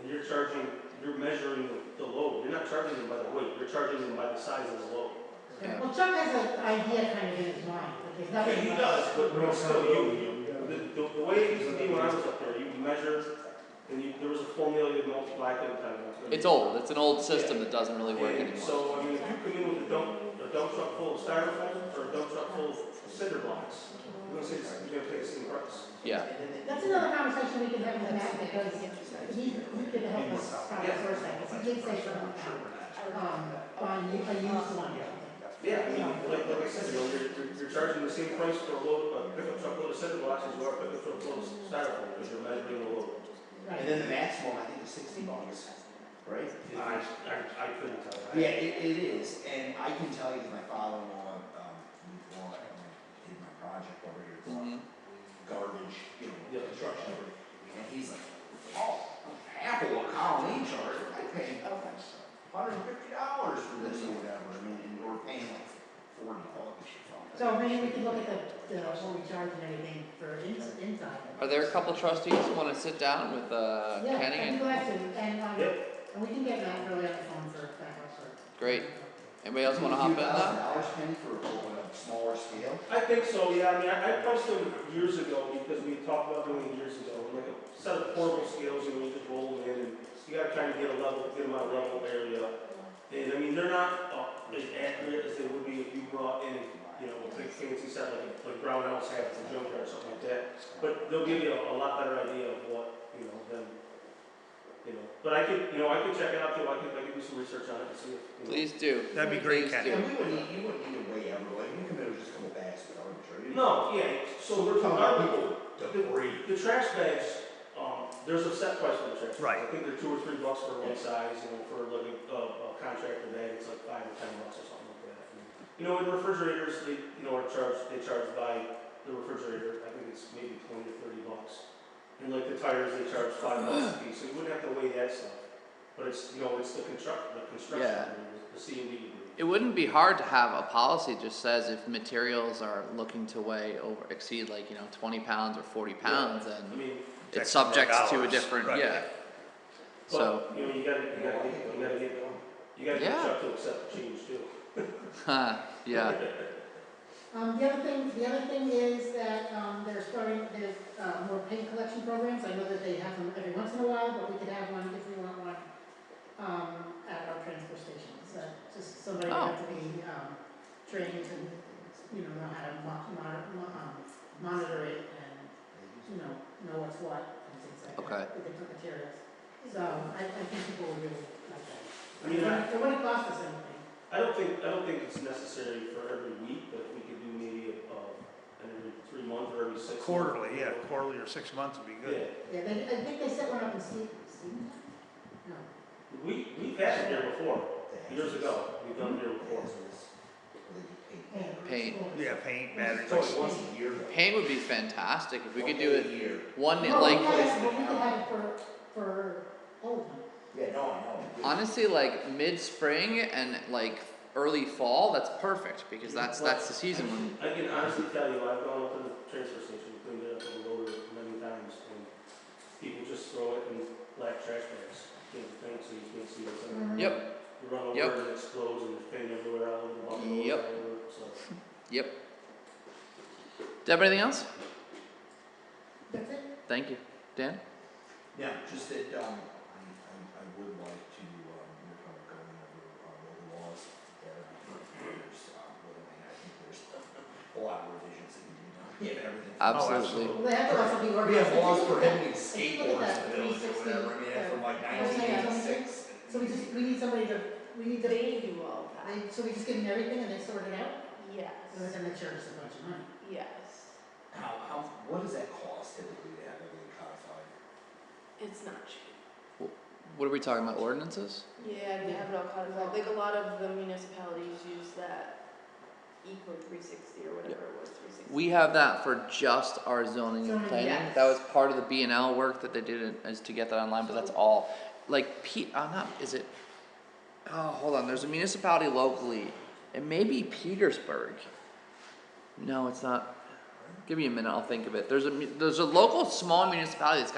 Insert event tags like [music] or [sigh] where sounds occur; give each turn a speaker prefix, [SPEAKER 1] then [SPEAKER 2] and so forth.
[SPEAKER 1] and you're charging, you're measuring the- the load, you're not charging them by the weight, you're charging them by the size of the load.
[SPEAKER 2] Well, Chuck has an idea kind of in his mind, but there's nothing.
[SPEAKER 1] Okay, he does, but but still, you, you, the, the, the way it used to be when I was up there, you measured, and you, there was a formula you multiply, I couldn't tell you. what it was.
[SPEAKER 3] It's old. It's an old system that doesn't really work
[SPEAKER 1] And
[SPEAKER 3] anymore.
[SPEAKER 1] so, I mean, if you come in with a dump, a dump truck full of styrofoam, or a dump truck full of cinder blocks, you're gonna say, it's- you're gonna pay the same price.
[SPEAKER 3] Yeah.
[SPEAKER 2] That's another conversation we can have in the back, because he, he could help us kind of first, because he did say something about, um, on, u- a used one.
[SPEAKER 1] Yeah, I mean, like, like I said, you know, you're, you're, you're charging the same price for a load, a pickup truck load of cinder blocks as you are a pickup truck load of styrofoam, because you're measuring the load.
[SPEAKER 2] Right.
[SPEAKER 4] And then the maximum, I think, is sixty bucks, right?
[SPEAKER 1] I, I, I couldn't tell. I-
[SPEAKER 4] Yeah, it, it is, and I can tell you, 'cause my father-in-law, um, moved along, and I did my project over here,
[SPEAKER 3] Mm-hmm.
[SPEAKER 4] garbage, you know,
[SPEAKER 1] Yeah.
[SPEAKER 4] construction. And he's like, oh, Apple, a colony charge, I pay hundred and fifty dollars for this or whatever, I mean, and we're paying like forty dollars or something.
[SPEAKER 2] So maybe we could look at the, the, what we charge and everything for ins- inside.
[SPEAKER 3] Are there a couple trustees who want to sit down with uh,
[SPEAKER 2] Yeah,
[SPEAKER 3] Kenny?
[SPEAKER 2] I'd be
[SPEAKER 3] And
[SPEAKER 2] glad to, and, um,
[SPEAKER 1] Yep.
[SPEAKER 2] and we can get Matt really on the phone for that also.
[SPEAKER 3] great. Anybody else want to hop in
[SPEAKER 4] Thousand
[SPEAKER 3] now?
[SPEAKER 4] dollars, Kenny, for a a smaller scale?
[SPEAKER 1] I think so, yeah, I mean, I, I priced them years ago, because we talked about doing it years ago, like a set of portable scales, you know, you could roll them in, and you gotta kind of get a level, get them out of level area. And I mean, they're not, uh, as accurate as they would be if you brought in, you know, a big fancy set like, like Brown House had from Junkyard or something like that. But they'll give you a, a lot better idea of what, you know, than, you know, but I could, you know, I could check it out too, I could, I could do some research on it and see if, you know.
[SPEAKER 3] Please do.
[SPEAKER 5] That'd be great,
[SPEAKER 3] Please
[SPEAKER 5] Kenny.
[SPEAKER 3] do.
[SPEAKER 4] And we wouldn't, need- you wouldn't need to weigh everyone, you could maybe just go back with arbitrary.
[SPEAKER 1] No, yeah, so we're talking about people.
[SPEAKER 4] Debris.
[SPEAKER 1] The trash bags, um, there's a set price for the trash. bags.
[SPEAKER 5] Right.
[SPEAKER 1] I think they're two or three bucks for one size, you know, for like a, a contractor bag, it's like five or ten bucks or something like that. And, You know, in refrigerators, they, you know, are charged, they charge by the refrigerator, I think it's maybe twenty to thirty bucks. And like the tires, they charge five bucks a piece, so you wouldn't have to weigh that stuff. But it's, you know, it's the construct, the construction,
[SPEAKER 3] Yeah.
[SPEAKER 1] debris, the C and D debris.
[SPEAKER 3] It wouldn't be hard to have a policy that just says if materials are looking to weigh over exceed like you know 20 pounds or 40 pounds,
[SPEAKER 1] I
[SPEAKER 3] then
[SPEAKER 1] mean,
[SPEAKER 3] it's
[SPEAKER 5] That's
[SPEAKER 3] subject to a
[SPEAKER 5] dollars,
[SPEAKER 3] different
[SPEAKER 5] right.
[SPEAKER 3] yeah. So
[SPEAKER 1] but, you know, you gotta, you gotta, get- you gotta get, you gotta get
[SPEAKER 3] Yeah.
[SPEAKER 1] Chuck to accept the change too.
[SPEAKER 3] huh, [laughs] yeah.
[SPEAKER 2] Um, the other thing, the other thing is that, um, they're starting, there's, uh, more paint collection programs, I know that they have them every once in a while, but we could have one if we want one, um, at our transfer station, so, just somebody would have to be, um, trained to, you know, know how to mo- mon- mo- um, monitor it and, you know, know what's what and things like that.
[SPEAKER 3] Okay.
[SPEAKER 2] With different materials, so I, I think people would really like that.
[SPEAKER 1] I mean, I,
[SPEAKER 2] It wouldn't cost us anything.
[SPEAKER 1] I don't think, I don't think it's necessary for every week, but if we could do maybe, uh, every three months or every six. months.
[SPEAKER 5] Quarterly, yeah, quarterly or six months would be
[SPEAKER 1] Yeah,
[SPEAKER 5] good.
[SPEAKER 2] Yeah, they, I think they set one up in Steve, Steve? No.
[SPEAKER 1] we, we've had it here before, years ago, we've done it here before.
[SPEAKER 3] Paint.
[SPEAKER 5] Yeah, paint, batteries.
[SPEAKER 4] It's only once a year. though.
[SPEAKER 3] Paint would be fantastic if we could do
[SPEAKER 4] Once
[SPEAKER 3] it
[SPEAKER 4] a year.
[SPEAKER 3] one
[SPEAKER 2] No,
[SPEAKER 3] like
[SPEAKER 2] we had it, but we could have it for, for Oldham.
[SPEAKER 4] Yeah, no, I know.
[SPEAKER 3] honestly like mid spring and like early fall. That's perfect because that's that's the season when
[SPEAKER 1] I can honestly tell you, I've gone up to the transfer station, cleaned it up and loaded it many times, and people just throw it in black trash bags. You know, things, so you can't see what's in it.
[SPEAKER 3] Yep.
[SPEAKER 1] You run
[SPEAKER 3] Mm-hmm. Yep.
[SPEAKER 1] over and it explodes and there's paint everywhere, all over the bottom.
[SPEAKER 3] Yep.
[SPEAKER 1] So.
[SPEAKER 3] Yep. Deb, anything else?
[SPEAKER 2] That's it?
[SPEAKER 3] Thank you. Dan?
[SPEAKER 4] Yeah, just that, um, I, I, I would like to, um, work on going over, um, all the laws there. There's, um, what I mean, I think there's a lot of revisions that need to be done. [laughs] We have everything.
[SPEAKER 5] Uh,
[SPEAKER 4] from-
[SPEAKER 3] Absolutely.
[SPEAKER 2] Well, they have to also be
[SPEAKER 4] We
[SPEAKER 2] organized.
[SPEAKER 4] have laws prohibiting
[SPEAKER 2] Take a look
[SPEAKER 4] skateboards
[SPEAKER 2] at
[SPEAKER 4] in the
[SPEAKER 2] that
[SPEAKER 4] village or whatever,
[SPEAKER 2] 360,
[SPEAKER 4] I mean, that's from like
[SPEAKER 2] yeah, yeah.
[SPEAKER 4] nineteen eighty-six.
[SPEAKER 2] So we just, we need somebody to, we need to,
[SPEAKER 6] They do all that,
[SPEAKER 2] they, so we just give them everything and they sort it out? So
[SPEAKER 6] yes,
[SPEAKER 2] then the church is a bunch of money.
[SPEAKER 6] yes.
[SPEAKER 4] How, how, what does that cost typically to have everything codified?
[SPEAKER 6] It's not cheap.
[SPEAKER 3] What are we talking about? Ordinances?
[SPEAKER 6] Yeah, they have it all codified, like a lot of the municipalities use that Eco three sixty or whatever it was, three sixty.
[SPEAKER 3] We have that for just our zoning and
[SPEAKER 2] Zoning,
[SPEAKER 3] planning.
[SPEAKER 6] yes.
[SPEAKER 3] That was part of the B and L work that they did in- is to get that online, but that's all. Like P, uh, not is it? Oh, hold on. There's a municipality locally. It may be Petersburg. No, it's not. Give me a minute. I'll think of it. There's a mu- there's a local small municipality that's got